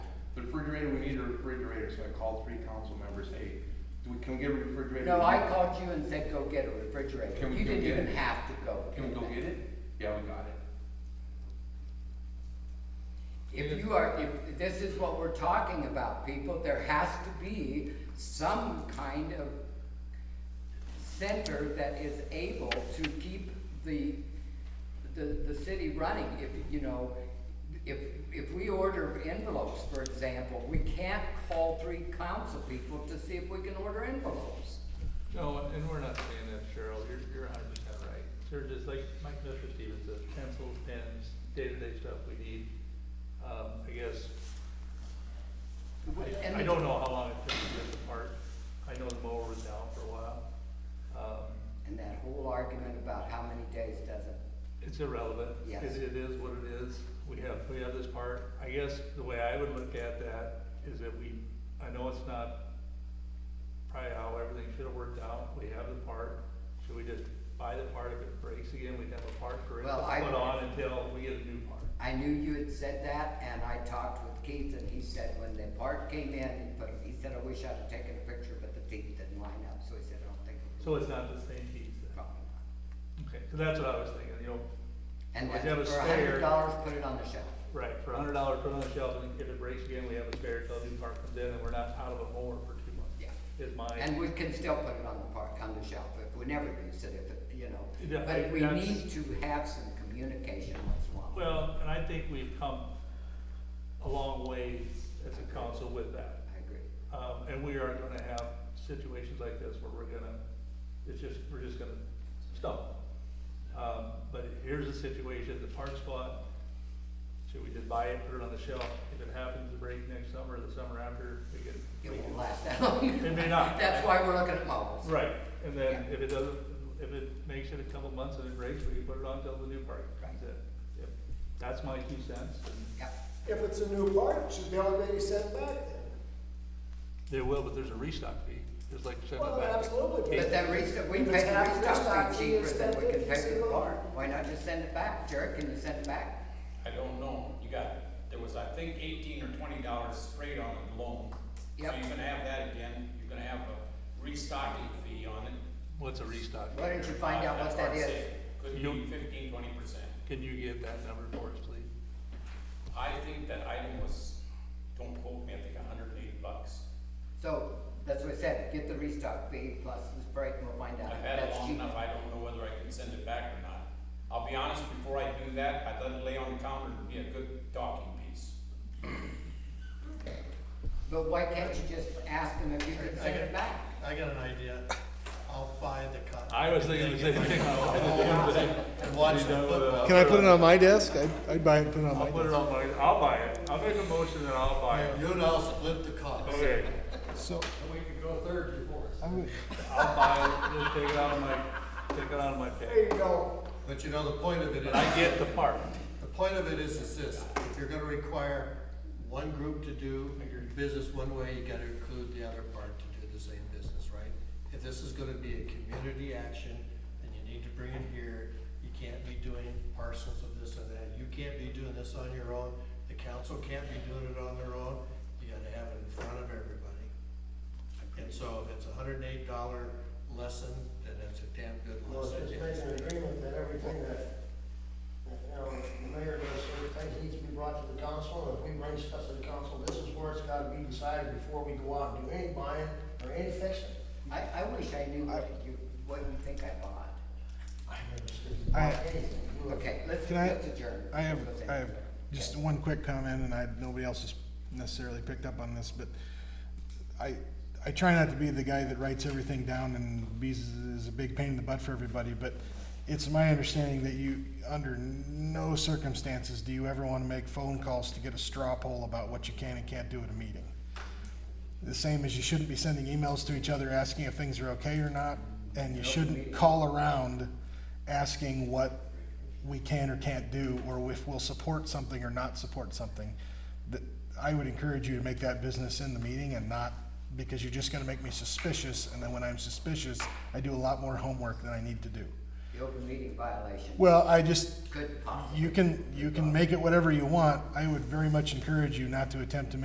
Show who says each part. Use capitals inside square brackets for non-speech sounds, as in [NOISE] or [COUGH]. Speaker 1: refrigerator, we need a refrigerator, so I called three council members, hey, do we, can we get a refrigerator?
Speaker 2: No, I called you and said, go get a refrigerator.
Speaker 1: Can we
Speaker 2: You
Speaker 1: go
Speaker 2: didn't
Speaker 1: get
Speaker 2: even
Speaker 1: it?
Speaker 2: have to go.
Speaker 1: Can we go get it? Yeah, we got it.
Speaker 2: If you are, if, this is what we're talking about, people, there has to be some kind of center that is able to keep the, the, the city running, if, you know, if, if we order envelopes, for example, we can't call three council people to see if we can order envelopes.
Speaker 3: No, and we're not saying that, Cheryl, you're, you're a hundred percent right. Sure, just like Mike, Mr. Stevens said, pencils, pens, day-to-day stuff we need. Um, I guess,
Speaker 2: And-
Speaker 3: I, I don't know how long it took to get the part. I know the mower was down for a while. Um,
Speaker 2: And that whole argument about how many days doesn't,
Speaker 3: It's irrelevant.
Speaker 2: Yes.
Speaker 3: It, it is what it is. We have, we have this part. I guess the way I would look at that is that we, I know it's not probably how everything should have worked out. We have the part. Should we just buy the part if it breaks again? We'd have a part for it
Speaker 2: Well, I-
Speaker 3: to put on until we get a new part.
Speaker 2: I knew you had said that, and I talked with Keith, and he said when the part came in, he put, he said, I wish I'd have taken a picture, but the teeth didn't line up, so he said, I don't think. it
Speaker 3: So it's not the same piece
Speaker 2: was
Speaker 3: then.
Speaker 2: probably not."
Speaker 3: Okay, so that's what I was thinking, you know,
Speaker 2: And
Speaker 3: Well, if you have a
Speaker 2: that's for a
Speaker 3: spare-
Speaker 2: hundred dollars, put it on the shelf.
Speaker 3: right, for a hundred dollars, put it on the shelf and if it breaks again, we have a spare till a new part comes in and we're not out of a mower for two months.
Speaker 2: Yeah.
Speaker 3: Is my.
Speaker 2: And we can still put it on the park, on the shelf, if we never use it, if it, you know.
Speaker 3: Yeah, I-
Speaker 2: But we
Speaker 3: that's-
Speaker 2: need to have some communication once in a while.
Speaker 3: Well, and I think we've come a long ways as a council with that.
Speaker 2: I agree.
Speaker 3: Um, and we are gonna have situations like this where we're gonna, it's just, we're just gonna stop. Um, but here's the situation, the parts spot, should we just buy it, put it on the shelf? If it happens to break next summer, or the summer after, we can.
Speaker 2: It
Speaker 3: we
Speaker 2: won't
Speaker 3: can-
Speaker 2: last that [LAUGHS] long.
Speaker 3: It may not.
Speaker 2: That's why we're looking at models.
Speaker 3: Right, and then
Speaker 2: Yeah.
Speaker 3: if it doesn't, if it makes it a couple months and it breaks, we can put it on till the new part comes in. Yep. That's my two cents, and
Speaker 2: Yep.
Speaker 4: If it's a new part, it should be already sent back then.
Speaker 3: They will, but there's a restock fee, just like sending
Speaker 4: Well,
Speaker 3: it back.
Speaker 4: absolutely.
Speaker 2: But that restock, we pay the
Speaker 4: If it's
Speaker 2: restock
Speaker 4: half
Speaker 2: fee cheaper
Speaker 4: restock,
Speaker 2: than we can
Speaker 4: it's
Speaker 2: pay for the
Speaker 4: still-
Speaker 2: bar. Why not just send it back? Jared, can you send it back?
Speaker 5: I don't know, you got, there was, I think, eighteen or twenty dollars sprayed on it alone.
Speaker 2: Yep.
Speaker 5: So you're gonna have that again, you're gonna have a restocking fee on it.
Speaker 3: What's a restock?
Speaker 2: Why don't you find out what
Speaker 5: Uh, That's
Speaker 2: that
Speaker 5: I'm
Speaker 2: is?
Speaker 5: saying. Could
Speaker 3: You-
Speaker 5: be fifteen, twenty percent.
Speaker 3: Can you get that number for us, please?
Speaker 5: I think that item was, don't quote me, I think hundred and eighty bucks.
Speaker 2: So, that's what I said, get the restock fee plus the break and we'll find out.
Speaker 5: I've
Speaker 2: if
Speaker 5: had it
Speaker 2: that's
Speaker 5: long
Speaker 2: cheap.
Speaker 5: enough, I don't know whether I can send it back or not. I'll be honest, before I do that, I let it lay on the counter and be a good talking piece.
Speaker 2: But why can't you just ask them if you can
Speaker 6: I
Speaker 2: send
Speaker 6: got-
Speaker 2: it back?
Speaker 6: I got an idea. I'll buy the cut.
Speaker 3: I was thinking the same
Speaker 4: Oh,
Speaker 3: [LAUGHS] thing. uh,
Speaker 6: And watch the football.
Speaker 7: Can I put it on my desk? I'd, I'd buy it and put it on
Speaker 3: I'll
Speaker 7: my
Speaker 3: put it
Speaker 7: desk.
Speaker 3: on my, I'll buy it, I'll make a motion and I'll buy it.
Speaker 6: You and I'll split the cost.
Speaker 3: Okay,
Speaker 7: So,
Speaker 6: we can go third or fourth.
Speaker 7: I would,
Speaker 3: I'll buy it, just take it out of my, take it out of my pay.
Speaker 4: There you go.
Speaker 6: But you know, the point of it
Speaker 3: But I
Speaker 6: is,
Speaker 3: get the part.
Speaker 6: the point of it is, is this, if you're gonna require one group to do business one way, you gotta include the other part to do the same business, right? If this is gonna be a community action, then you need to bring it here. You can't be doing parcels of this and that. You can't be doing this on your own. The council can't be doing it on their own. You gotta have it in front of everybody. And so if it's a hundred and eight dollar lesson, then that's a damn good
Speaker 8: Well, it's
Speaker 6: lesson.
Speaker 8: just based on agreement that everything that, that, you know, the mayor does, everything needs to be brought to the council, and if we bring stuff to the council, this is where it's gotta be decided before we go out and do any buying or any fixing.
Speaker 2: I, I wish I knew what you, what you think I bought.
Speaker 8: I never said
Speaker 7: I-
Speaker 8: anything. You know,
Speaker 2: Okay, let's,
Speaker 7: Can I-
Speaker 2: let's adjourn.
Speaker 7: I have,
Speaker 2: Let's
Speaker 7: I have
Speaker 2: adjourn.
Speaker 7: just one quick comment, and I, nobody else has necessarily picked up on this, but I, I try not to be the guy that writes everything down and bees is a big pain in the butt for everybody, but it's my understanding that you, under no circumstances do you ever want to make phone calls to get a straw poll about what you can and can't do at a meeting. The same as you shouldn't be sending emails to each other asking if things are okay or not, and you shouldn't call around asking what we can or can't do, or if we'll support something or not support something. That, I would encourage you to make that business in the meeting and not, because you're just gonna make me suspicious, and then when I'm suspicious, I do a lot more homework than I need to do.
Speaker 2: The open meeting violation
Speaker 7: Well, I just,
Speaker 2: could possibly.
Speaker 7: you can, you can make it whatever you want, I would very much encourage you not to attempt to